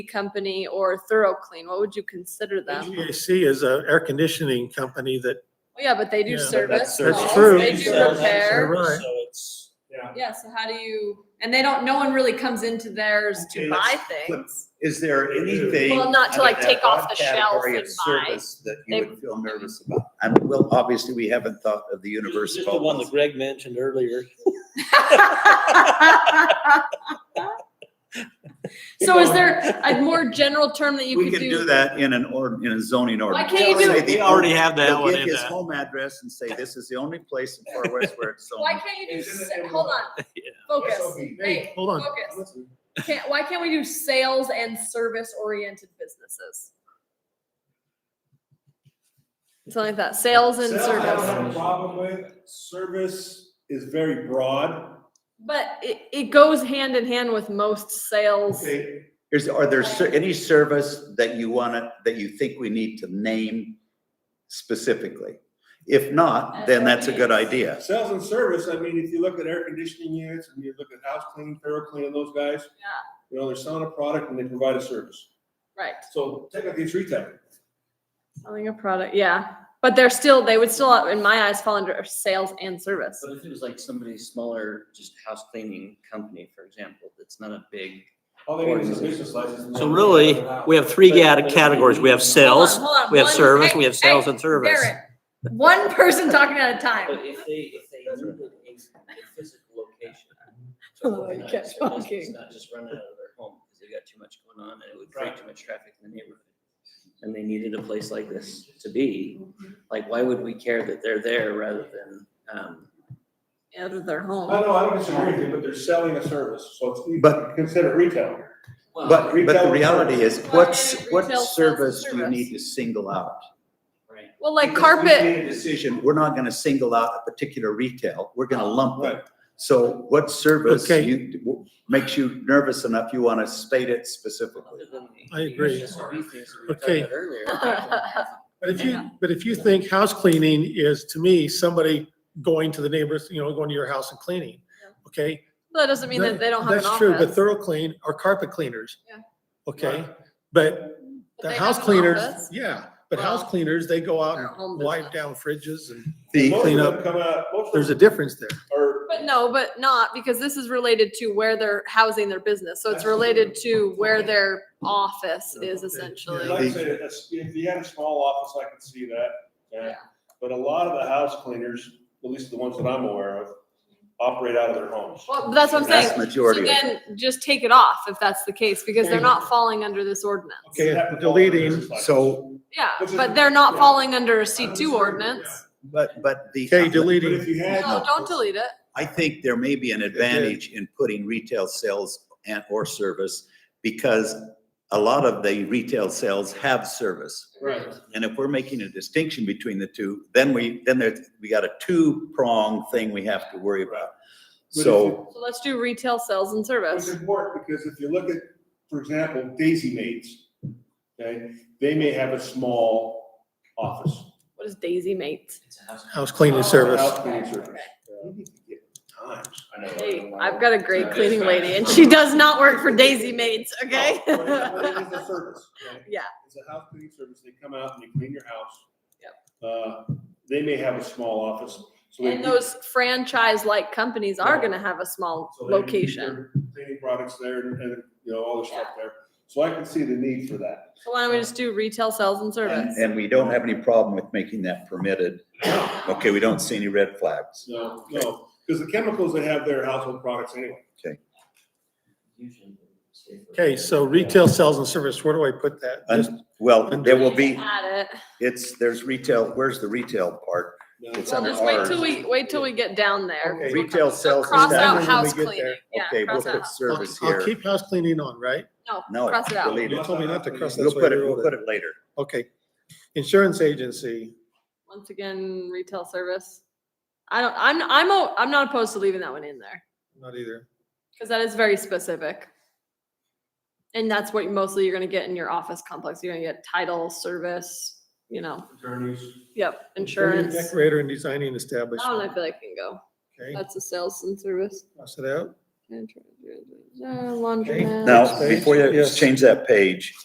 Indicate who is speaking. Speaker 1: company or Thorough Clean? What would you consider them?
Speaker 2: HVAC is an air conditioning company that,
Speaker 1: Well, Yeah, but they do
Speaker 2: Yeah, but
Speaker 1: service.
Speaker 3: That's
Speaker 2: That's
Speaker 1: calls,
Speaker 2: true.
Speaker 1: They do
Speaker 2: Yeah, that's
Speaker 1: repair.
Speaker 2: true.
Speaker 3: So
Speaker 2: Right.
Speaker 3: it's, yeah.
Speaker 1: Yeah, so how do you, and they don't, no one really comes into theirs
Speaker 4: Okay,
Speaker 1: to
Speaker 4: let's
Speaker 1: buy things.
Speaker 4: Is there anything?
Speaker 1: Well, not to,
Speaker 4: out of
Speaker 1: like,
Speaker 4: that
Speaker 1: take off
Speaker 4: broad
Speaker 1: the shelf
Speaker 4: category
Speaker 1: and
Speaker 4: of
Speaker 1: buy.
Speaker 4: service That
Speaker 1: They-
Speaker 4: you would feel nervous about? And well, obviously, we haven't thought of the universe
Speaker 3: Just
Speaker 4: of
Speaker 3: the one
Speaker 4: all.
Speaker 3: that Greg mentioned earlier.
Speaker 1: So is there a more general term that you
Speaker 4: We
Speaker 1: could do?
Speaker 4: can do that in an ord, in a zoning
Speaker 1: Why
Speaker 4: ordinance.
Speaker 1: can't you
Speaker 4: Say
Speaker 1: do,
Speaker 4: the-
Speaker 3: We already have that
Speaker 4: They'll
Speaker 3: one
Speaker 4: give
Speaker 3: in
Speaker 4: his
Speaker 3: that.
Speaker 4: home address and say, this is the only place in Far West where it's
Speaker 1: why
Speaker 4: zoned.
Speaker 1: can't you do,
Speaker 3: It's in
Speaker 1: sa-
Speaker 3: the-
Speaker 1: hold on, focus. Hey,
Speaker 2: hold on.
Speaker 1: Focus. Can't, why can't we do sales and service oriented businesses? Something like that, sales and
Speaker 5: Sales, I don't
Speaker 1: service.
Speaker 5: have a problem with, service is very broad.
Speaker 1: But it, it goes hand in hand with most sales.
Speaker 5: Okay,
Speaker 4: Is, are there cer- any service that you wanna, that you think we need to name specifically? If not, then that's a good idea.
Speaker 5: sales and service, I mean, if you look at air conditioning units, and you look at house cleaning, thorough cleaning, those guys.
Speaker 1: Yeah.
Speaker 5: You know, they're selling a product and they provide a service,
Speaker 1: Right.
Speaker 5: so technically it's retail.
Speaker 1: Selling a product, yeah. But they're still, they would still, in my eyes, fall under sales and service.
Speaker 6: But if it was like somebody's smaller, just house cleaning company, for example, that's not a big,
Speaker 5: All they need is a business license. and
Speaker 3: So
Speaker 5: they-
Speaker 3: really, we have three gat- categories. We have sales,
Speaker 1: Hold on, hold on.
Speaker 3: we have
Speaker 1: One-
Speaker 3: service,
Speaker 1: hey,
Speaker 3: we have
Speaker 1: hey,
Speaker 3: sales and service.
Speaker 1: Barrett, One person talking at a
Speaker 6: but
Speaker 1: time.
Speaker 6: if they, if they needed a a physical location. to
Speaker 1: Oh, I kept
Speaker 6: organize their business,
Speaker 1: talking.
Speaker 6: Not just running out of their home because they've got too much going on and it would create too much traffic in the neighborhood. And they needed a place like this to be, like, why would we care that they're there rather than, um,
Speaker 1: Out of their
Speaker 5: I
Speaker 1: home.
Speaker 5: know, I don't disagree with you, but they're selling a service, so it's,
Speaker 4: But-
Speaker 5: you consider retail.
Speaker 6: well,
Speaker 4: But, but the
Speaker 5: Retail-
Speaker 4: reality is,
Speaker 1: Well,
Speaker 4: what's,
Speaker 1: retail
Speaker 4: what
Speaker 1: sales
Speaker 4: service do you
Speaker 1: service.
Speaker 4: need to single out?
Speaker 6: right.
Speaker 1: Well, like
Speaker 4: Because we've
Speaker 1: carpet,
Speaker 4: made a Decision, we're not gonna single out a particular retail, we're gonna lump
Speaker 5: Right.
Speaker 4: them. So what service
Speaker 2: Okay.
Speaker 4: you, w- makes you nervous enough, you wanna state it specifically?
Speaker 6: Other than the-
Speaker 2: I agree.
Speaker 6: the SRV things we were talking
Speaker 2: Okay.
Speaker 6: about Earlier. I
Speaker 2: But if you, but if you think house cleaning is, to me, somebody going to the neighbors, you know, going to your house and cleaning, okay?
Speaker 1: that doesn't mean that they don't have an
Speaker 2: That's true, but
Speaker 1: office.
Speaker 2: thorough clean are carpet cleaners.
Speaker 1: Yeah.
Speaker 2: Okay, but
Speaker 1: But
Speaker 2: the
Speaker 1: they
Speaker 2: house
Speaker 1: have an
Speaker 2: cleaners,
Speaker 1: office.
Speaker 2: yeah, but house
Speaker 1: Well,
Speaker 2: cleaners, they go out
Speaker 1: they're a home
Speaker 2: and wipe down fridges and
Speaker 4: The,
Speaker 5: Most of
Speaker 2: clean
Speaker 5: them
Speaker 2: up.
Speaker 5: Come out, most of
Speaker 2: there's a
Speaker 5: them
Speaker 2: difference there.
Speaker 5: are.
Speaker 1: But no, but not, because this is related to where they're housing their business. So it's related to where their office is essentially.
Speaker 5: Like I said, it's- if you had a small office, I could see that, yeah.
Speaker 1: Yeah.
Speaker 5: But a lot of the house cleaners, at least the ones that I'm aware of, operate out of their homes.
Speaker 1: Well, but that's what I'm
Speaker 4: vast
Speaker 1: saying. So
Speaker 4: majority of it.
Speaker 1: then just take it off if that's the case, because they're not falling under this ordinance.
Speaker 5: Okay, that would fall under
Speaker 2: Deleting,
Speaker 5: business license.
Speaker 4: so,
Speaker 1: Yeah,
Speaker 5: Which is-
Speaker 1: but they're not
Speaker 5: yeah.
Speaker 1: falling under a C
Speaker 5: I'm
Speaker 1: two
Speaker 5: sorry,
Speaker 1: ordinance.
Speaker 4: but, but the.
Speaker 2: Okay,
Speaker 5: But if
Speaker 2: deleting,
Speaker 5: you had.
Speaker 1: No, don't delete it.
Speaker 4: I think there may be an advantage in putting retail sales and or service because a lot of the retail sales have service.
Speaker 5: Right.
Speaker 4: And if we're making a distinction between the two, then we, then there's, we got a two-prong thing we have to worry about.
Speaker 5: But if
Speaker 4: So,
Speaker 1: So let's do retail sales and
Speaker 5: It's
Speaker 1: service.
Speaker 5: important because if you look at, for example, Daisy Maids, okay, they may have a small office.
Speaker 1: What is Daisy Mate?
Speaker 6: It's a house.
Speaker 2: house cleaning service.
Speaker 5: House cleaning service. You need to get Times. I know.
Speaker 1: Hey, I've got a great cleaning lady and she does not work for Daisy Mates, okay?
Speaker 5: No, but it- but it is a service, okay?
Speaker 1: Yeah.
Speaker 5: It's a house cleaning service. They come out and they clean your house.
Speaker 1: Yep.
Speaker 5: Uh, they may have a small office, so they.
Speaker 1: And
Speaker 5: do-
Speaker 1: those franchise-like companies are gonna have a small
Speaker 5: so they do
Speaker 1: location.
Speaker 5: their Cleaning products there and, and, you know, all the stuff there. So I can see the need for that.
Speaker 1: So why don't we just do retail sales and
Speaker 4: and,
Speaker 1: service?
Speaker 4: and we don't have any problem with making that permitted. Okay, we don't see any red flags.
Speaker 5: No, no, because the chemicals they have there are household products anyway.
Speaker 6: Usually safer.
Speaker 2: Okay, so retail sales and service, where do I put that?
Speaker 4: And-
Speaker 2: Just-
Speaker 4: Well, there will be,
Speaker 1: Add it.
Speaker 4: it's, there's retail, where's the retail part?
Speaker 5: No.
Speaker 4: It's
Speaker 1: Well,
Speaker 4: under
Speaker 1: just wait
Speaker 4: ours.
Speaker 1: till we, wait till we get down there.
Speaker 2: Okay.
Speaker 4: Retail
Speaker 1: So
Speaker 4: sales and
Speaker 1: Cross out
Speaker 2: service.
Speaker 1: house
Speaker 2: When we get
Speaker 1: cleaning.
Speaker 2: there.
Speaker 1: Yeah,
Speaker 4: Okay, we'll
Speaker 1: cross out
Speaker 4: put
Speaker 1: house.
Speaker 2: I'll-
Speaker 4: service
Speaker 2: I'll
Speaker 4: here.
Speaker 2: keep house cleaning on, right?
Speaker 1: No,
Speaker 4: No,
Speaker 1: cross it out.
Speaker 4: delete
Speaker 2: You told me not to cross that.
Speaker 4: We'll
Speaker 2: That's why
Speaker 4: put
Speaker 2: I
Speaker 4: it,
Speaker 2: wrote
Speaker 4: we'll put it later.
Speaker 2: Okay. Insurance agency,
Speaker 1: Once again, retail service. I don't, I'm, I'm, o- I'm not opposed to leaving that one in there
Speaker 2: not either.
Speaker 1: because that is very specific. And that's what mostly you're gonna get in your office complex. You're gonna get title, service, you know,
Speaker 5: Attorneys.
Speaker 1: yep, insurance. Oh, That
Speaker 2: Decorator and designing
Speaker 1: one I
Speaker 2: establishment,
Speaker 1: feel like can go.
Speaker 2: okay,
Speaker 1: That's a sales and service. Uh,
Speaker 2: cross it out.
Speaker 7: Laundromat.
Speaker 4: Now, before you
Speaker 1: Yes.
Speaker 4: change that page,